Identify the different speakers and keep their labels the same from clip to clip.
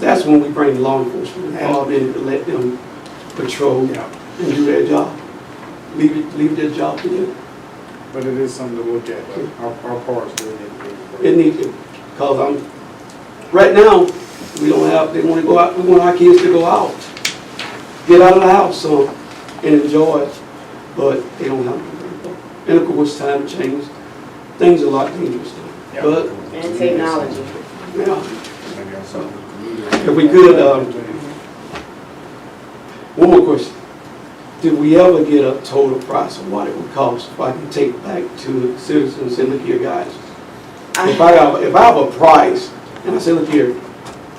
Speaker 1: that's when we bring law enforcement involved in it to let them patrol and
Speaker 2: Yeah,
Speaker 1: do their job. Leave it, leave their job to them.
Speaker 2: but it is something to look at, but our, our cars do need to be.
Speaker 1: It needs to, cause I'm, right now, we don't have, they wanna go out, we want our kids to go out. Get out of the house, so, and enjoy it, but they don't have. it. And of course, time changes, things are a lot dangerous now, but,
Speaker 3: And technology.
Speaker 1: yeah.
Speaker 2: If
Speaker 1: If we could, um, One more question. Did we ever get a total price of what it would cost if I can take back to the citizens and look here, guys? If I have, if I have a price and I say, look here,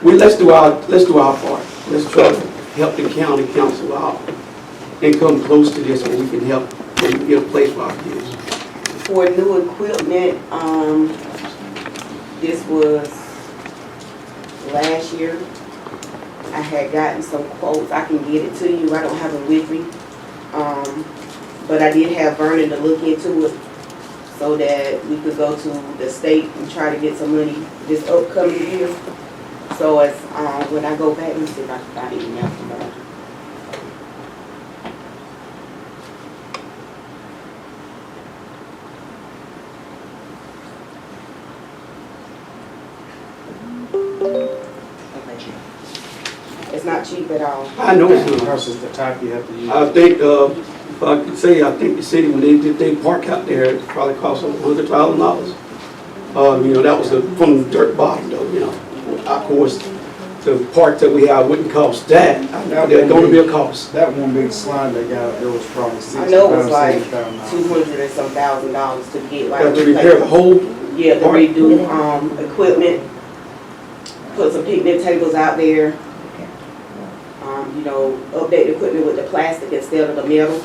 Speaker 1: we, let's do our, let's do our part. Let's try to help the county council out and come close to this where we can help, where we can get a place for our kids.
Speaker 3: For new equipment, um, this was last year. I had gotten some quotes, I can get it to you, I don't have it with me. Um, but I did have Vernon to look into it so that we could go to the state and try to get some money this upcoming year. So it's, um, when I go back, let me see if I can find an email from Vernon. It's not cheap at all.
Speaker 1: I know it's not.
Speaker 2: Versus the type you have to use.
Speaker 1: I think, uh, if I could say, I think the city, when they did they park out there, it probably cost them hundred thousand dollars. Uh, you know, that was the- from the dirt bottom though, you know. Of course, the park that we have wouldn't cost that. There's gonna be a cost.
Speaker 2: That one big slide they got, there was probably
Speaker 3: I
Speaker 2: sixty
Speaker 3: know it was
Speaker 2: pounds,
Speaker 3: like
Speaker 2: seventy
Speaker 3: two
Speaker 2: pounds.
Speaker 3: hundred and some thousand dollars to get like.
Speaker 1: Have to repair the whole,
Speaker 3: Yeah, to redo, um, equipment, put some picnic tables out there. Um, you know, update the equipment with the plastic instead of the metal.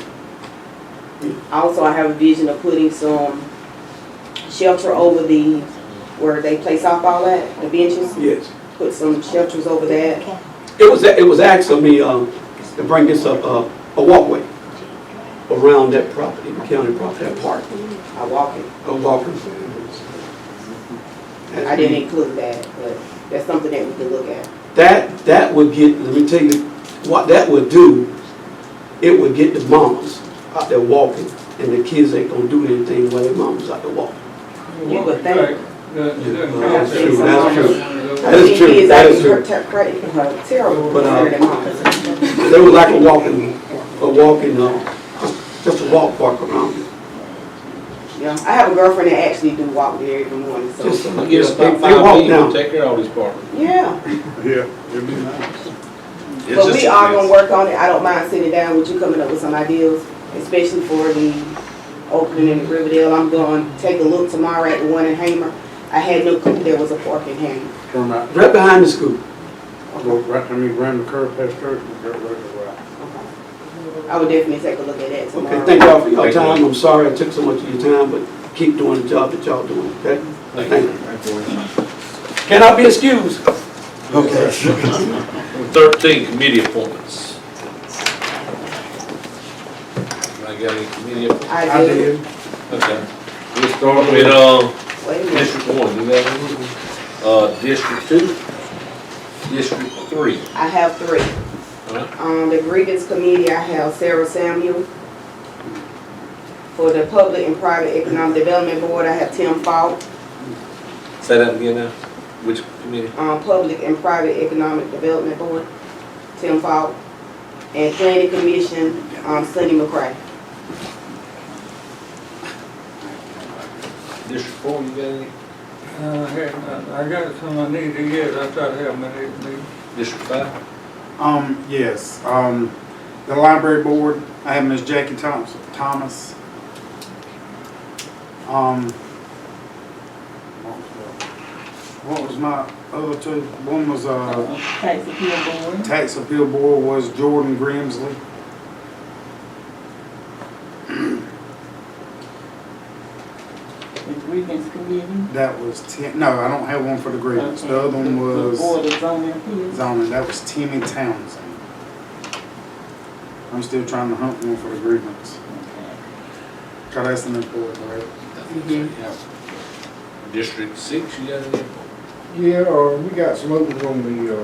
Speaker 3: Also, I have a vision of putting some shelter over the, where they play softball at, the benches,
Speaker 1: yes.
Speaker 3: put some shelters over that.
Speaker 1: It was, it was asked of me, um, to bring this up, uh, a walkway around that property, the county property, that park,
Speaker 3: I walk it.
Speaker 1: a walkway.
Speaker 3: I didn't include that, but that's something that we could look at.
Speaker 1: That, that would get, let me tell you, what that would do, it would get the mamas out there walking, and the kids ain't gonna do anything while their mamas out there walking.
Speaker 3: You would think.
Speaker 1: That's true, that's
Speaker 3: I
Speaker 1: true.
Speaker 4: That's
Speaker 1: is
Speaker 3: think
Speaker 1: true.
Speaker 3: kids
Speaker 1: That
Speaker 3: are
Speaker 1: is true.
Speaker 3: ter- credit- uh, Terrible.
Speaker 1: But, uh,
Speaker 3: compared to mine.
Speaker 1: They would like a walking, a walking, uh, just a walk park around it.
Speaker 3: Yeah, I have a girlfriend that actually do walk there every morning, so.
Speaker 1: Just,
Speaker 4: I guess
Speaker 1: they
Speaker 4: about
Speaker 1: they
Speaker 4: five
Speaker 1: walk
Speaker 4: people
Speaker 1: down.
Speaker 4: take care of all these parking.
Speaker 3: Yeah,
Speaker 2: Yeah, it'd be nice.
Speaker 3: but we are gonna work on it. I don't mind sitting down with you, coming up with some ideas, especially for the Oakland and Riverdale. I'm going to take a look tomorrow at the one in Hamer. I had no clue there was a park in Hamer.
Speaker 2: Turn out,
Speaker 1: Right behind the school.
Speaker 2: go right, I mean, round the curve past church and go right around.
Speaker 3: I would definitely take a look at that tomorrow.
Speaker 1: Okay, thank y'all for your
Speaker 4: Thank you.
Speaker 1: time. I'm sorry I took so much of your time, but keep doing the job that y'all doing, okay? Thank you. Can I be excused?
Speaker 4: Thirteen committee appointments. I got any committee appointments?
Speaker 3: I did,
Speaker 4: Okay. We'll start with, uh,
Speaker 3: wait a minute.
Speaker 4: District One, you got any? Uh, District Two, District Three.
Speaker 3: I have three.
Speaker 4: Alright.
Speaker 3: On Um, the grievance committee, I have Sarah Samuel. For the Public and Private Economic Development Board, I have Tim Falk.
Speaker 4: Say that again now, which committee?
Speaker 3: um, Public and Private Economic Development Board, Tim Falk, and Planning Commission, um, Sunny McCray.
Speaker 4: District Four, you got any?
Speaker 5: Uh, hey, I I got some I need to get, I thought I had my next meeting.
Speaker 4: District Five?
Speaker 2: Um, yes, um, the library board, I have Miss Jackie Thompson, Thomas. Um, what was my other two? One was, uh,
Speaker 6: Tax appeal board.
Speaker 2: Tax appeal board was Jordan Grimsley.
Speaker 6: The grievance committee.
Speaker 2: That was Tim, no, I don't have one for the grievance. The other one
Speaker 6: The board
Speaker 2: was
Speaker 6: of zoning appeals.
Speaker 2: zoning, that was Timmy Townsend. I'm still trying to hunt one for the grievance. God, that's an important, right? Yeah.
Speaker 4: District Six, you got any appointments?
Speaker 7: Yeah, uh, we got some others on the, uh,